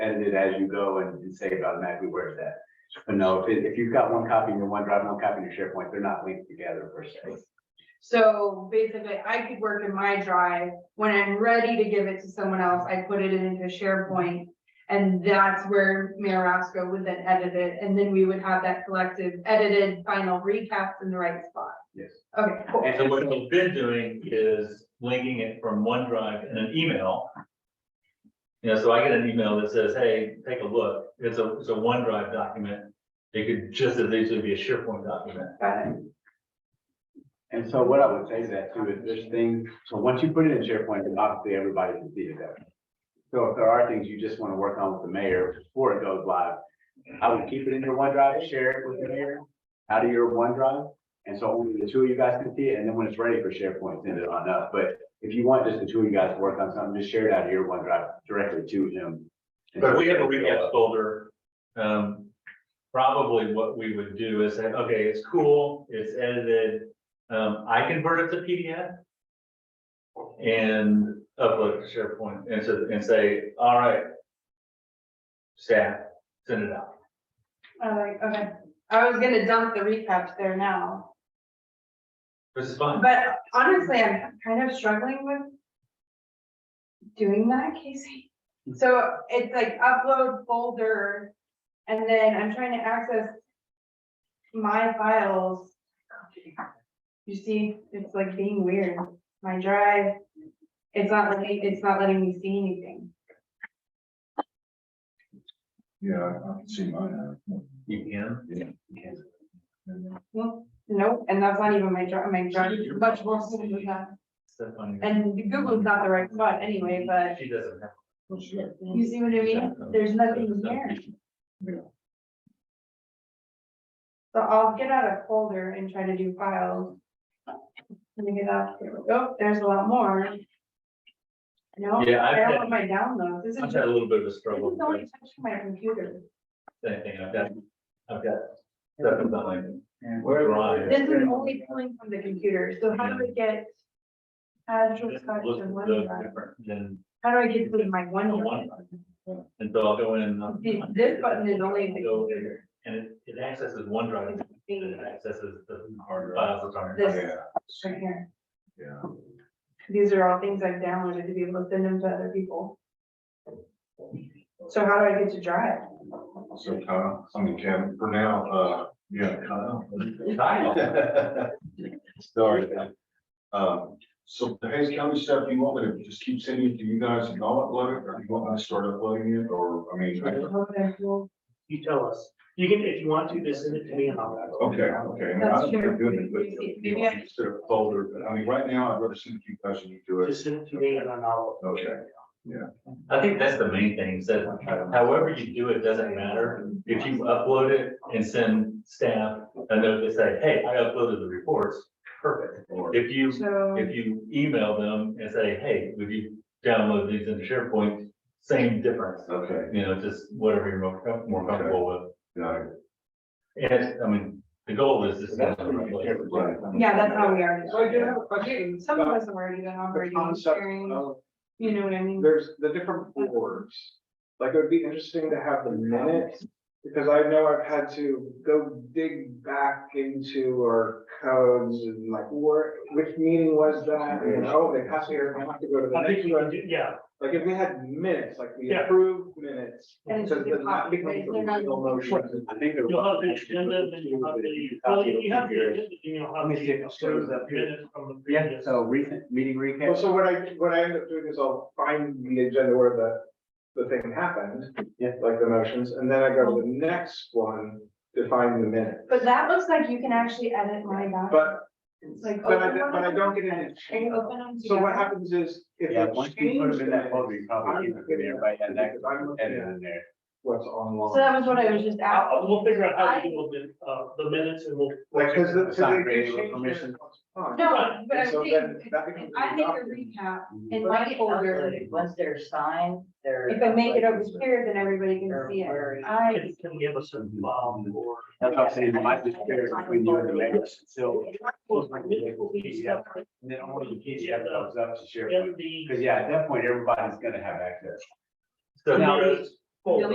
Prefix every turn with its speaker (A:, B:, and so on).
A: edit it as you go and and save it automatically where it's at. But no, if, it- if you've got one copy in your OneDrive, one copy in your SharePoint, they're not linked together per se.
B: So basically, I could work in my drive, when I'm ready to give it to someone else, I put it into SharePoint. And that's where Mayor Roscoe would then edit it, and then we would have that collective edited final recap in the right spot.
A: Yes.
B: Okay, cool.
C: And so what we've been doing is linking it from OneDrive in an email. You know, so I get an email that says, hey, take a look, it's a, it's a OneDrive document. It could just as easily be a SharePoint document.
B: Got it.
A: And so what I would say is that too, is there's things, so once you put it in SharePoint, then obviously everybody can see it there. So if there are things you just want to work on with the mayor before it goes live, I would keep it in your OneDrive, share it with the mayor out of your OneDrive. And so only the two of you guys can see it, and then when it's ready for SharePoint, send it on up. But if you want just the two of you guys to work on something, just share it out of your OneDrive directly to him.
C: But we have a recap folder. Um, probably what we would do is say, okay, it's cool, it's edited. Um, I convert it to PDF. And upload to SharePoint and so, and say, all right. Staff, send it out.
B: I like, okay, I was gonna dump the recaps there now,
C: This is fine.
B: but honestly, I'm kind of struggling with. Doing that, Casey, so it's like upload folder, and then I'm trying to access. My files. You see, it's like being weird, my drive, it's not letting, it's not letting me see anything.
D: Yeah, I can see mine.
C: You can.
B: Well, nope, and that's not even my drive, my drive,
C: Your-
B: much more simple than that.
C: Step on your-
B: And Google's not the right spot anyway, but
C: She doesn't have.
B: you see what I mean? There's nothing there. So I'll get out a folder and try to do files. Let me get out, here we go, Oh, there's a lot more. No, I
C: Yeah, I've
B: don't have
C: had,
B: my downloads. This is
C: I've
B: just,
C: had a little bit of a
B: this is
C: struggle with
B: only
C: that
B: touching my computer.
C: thing. I've got, I've got stuff in my drive.
B: This is only pulling from the computer, so how do I get? Azure Scotch
C: Look,
B: and
C: look
B: OneDrive?
C: different than
B: How do I get to my
C: the
B: OneDrive?
C: one. And so I'll go in and. I'll-
B: See, This button is only in the
C: Go over
B: computer.
C: here, And it, it accesses OneDrive, and
B: See,
C: it accesses the
D: Hard drive.
C: files that are.
B: This
D: Yeah,
B: right here.
D: yeah.
B: These are all things I've downloaded to be able to send them to other people. So how do I get to Drive?
D: So Kyle, I mean, Kevin, for now, uh, yeah, Kyle.
C: Kyle.
D: Sorry. Um, so the Hayes County stuff, you want me to just keep sending it to you guys and all upload it, or you want me to start uploading it, or, I mean, I-
B: Okay, cool.
E: You tell us. You can, if you want to, just send it to me and I'll.
D: okay, okay. and I
B: That's
D: don't think
B: true.
D: I'm doing it, but
B: Maybe
D: you
B: I-
D: want me to Set up a folder, but I mean, right now, I'd rather send it to you guys and you do it.
E: Just send it to me and then I'll.
D: Okay.
C: I think that's the main thing, is that however you do it, doesn't matter. If you upload it and send staff, and they'll just say, hey, I uploaded the reports, perfect.
D: Or-
C: If you,
B: So,
C: if you email them and say, hey, would you download these into SharePoint, same difference.
D: Okay,
C: You know, just whatever you're more com- more comfortable with.
D: got it.
C: And, it's- I mean, the goal is just.
D: Right.
B: yeah, that's how we are.
F: So I do have a question.
B: Some of us have already been
F: The
B: operating, and
F: concept
B: sharing,
F: of,
B: you know what I mean?
F: there's the different boards. Like, it would be interesting to have the minutes, because I know I've had to go dig back into our codes and like, where, which meeting was that? And, oh, they passed me, here, I have to go to the
E: I think
F: next
E: you
F: one.
E: would, yeah,
F: Like, if we had minutes, like we
E: Yeah.
F: approved minutes.
B: And it's
F: So
B: just a
F: then that
B: copy,
F: becomes
B: right?
F: a
B: They're not-
F: legal motion.
A: I think.
E: you'll have the agenda, then you'll have the, well, if you have the, agenda, then you'll
A: Let
E: have
A: me see if it shows
E: the
A: up here.
E: minutes from the
A: Yeah,
E: previous.
A: so recent meeting recap.
F: Well, so what I, what I end up doing is I'll find the agenda where the, the thing happened.
A: Yeah.
F: Like the motions, and then I go to the next one to find the minute,
B: But that looks like you can actually edit my document.
F: but.
B: It's like
F: But I,
B: open
F: but I
B: one.
F: don't get any
B: Are you
F: change.
B: open on?
F: So what
B: together?
F: happens is. if
A: Yeah,
F: they
A: once you put
F: change
A: them in that
F: the-
A: folder, you probably keep them in there, right? And that, and then in there.
F: What's
B: So
F: online.
B: that was what I was just
E: I'll- I'll-
B: asking.
E: We'll figure out how to do the, uh, the minutes and we'll.
F: Like, cause the, cause
A: Sign
F: they- they
A: creative
F: change
A: permission.
F: it. Oh.
B: No, but I'm
F: So
B: saying,
F: then that becomes
B: I make
F: adopted.
B: a recap in
G: Well,
B: my
G: they
B: folder.
G: upload it. Once they're signed, they're.
B: If I make it over here, then everybody can
G: Or
B: see
G: where
B: it.
G: it-
B: I,
E: Can can give us a um, file for.
A: That's what I'm saying, you might just share it between you and the mayor, so.
E: Yeah,
A: And then only the PDF comes up to share.
E: and
A: Because yeah, at that point, everybody's gonna have access.
C: So
A: Now,
C: there's, folder.